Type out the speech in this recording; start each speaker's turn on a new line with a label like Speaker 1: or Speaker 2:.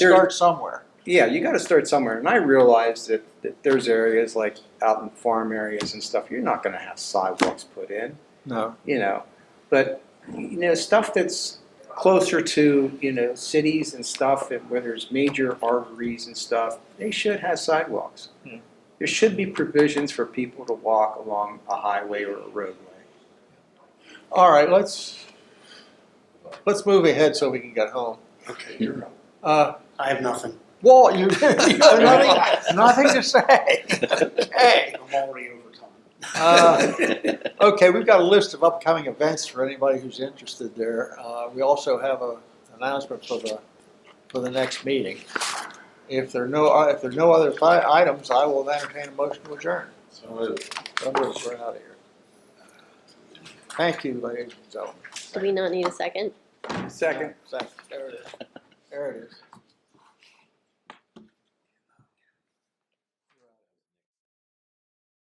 Speaker 1: There-
Speaker 2: start somewhere.
Speaker 1: yeah, you got to start somewhere. And I realize that, that there's areas like out in farm areas and stuff, you're not going to have sidewalks put in,
Speaker 2: No.
Speaker 1: you know. But, you know, stuff that's closer to, you know, cities and stuff, and where there's major arteries and stuff, they should have sidewalks.
Speaker 2: Hmm.
Speaker 1: There should be provisions for people to walk along a highway or a roadway.
Speaker 2: All right, let's, let's move ahead so we can get home.
Speaker 3: Okay, you're up.
Speaker 2: Uh,
Speaker 3: I have nothing.
Speaker 2: Walt, you, you have nothing, nothing to say. Okay.
Speaker 3: I'm already over time.
Speaker 2: Uh, Okay, we've got a list of upcoming events for anybody who's interested there. Uh, We also have a announcement for the, for the next meeting. If there are no, uh, if there are no other fi- items, I will entertain a motion to adjourn.
Speaker 3: So moved.
Speaker 2: Don't do it, we're out of here. Thank you, ladies and gentlemen.
Speaker 4: Do we not need a second?
Speaker 1: Second.
Speaker 2: Second, there it is. There it is.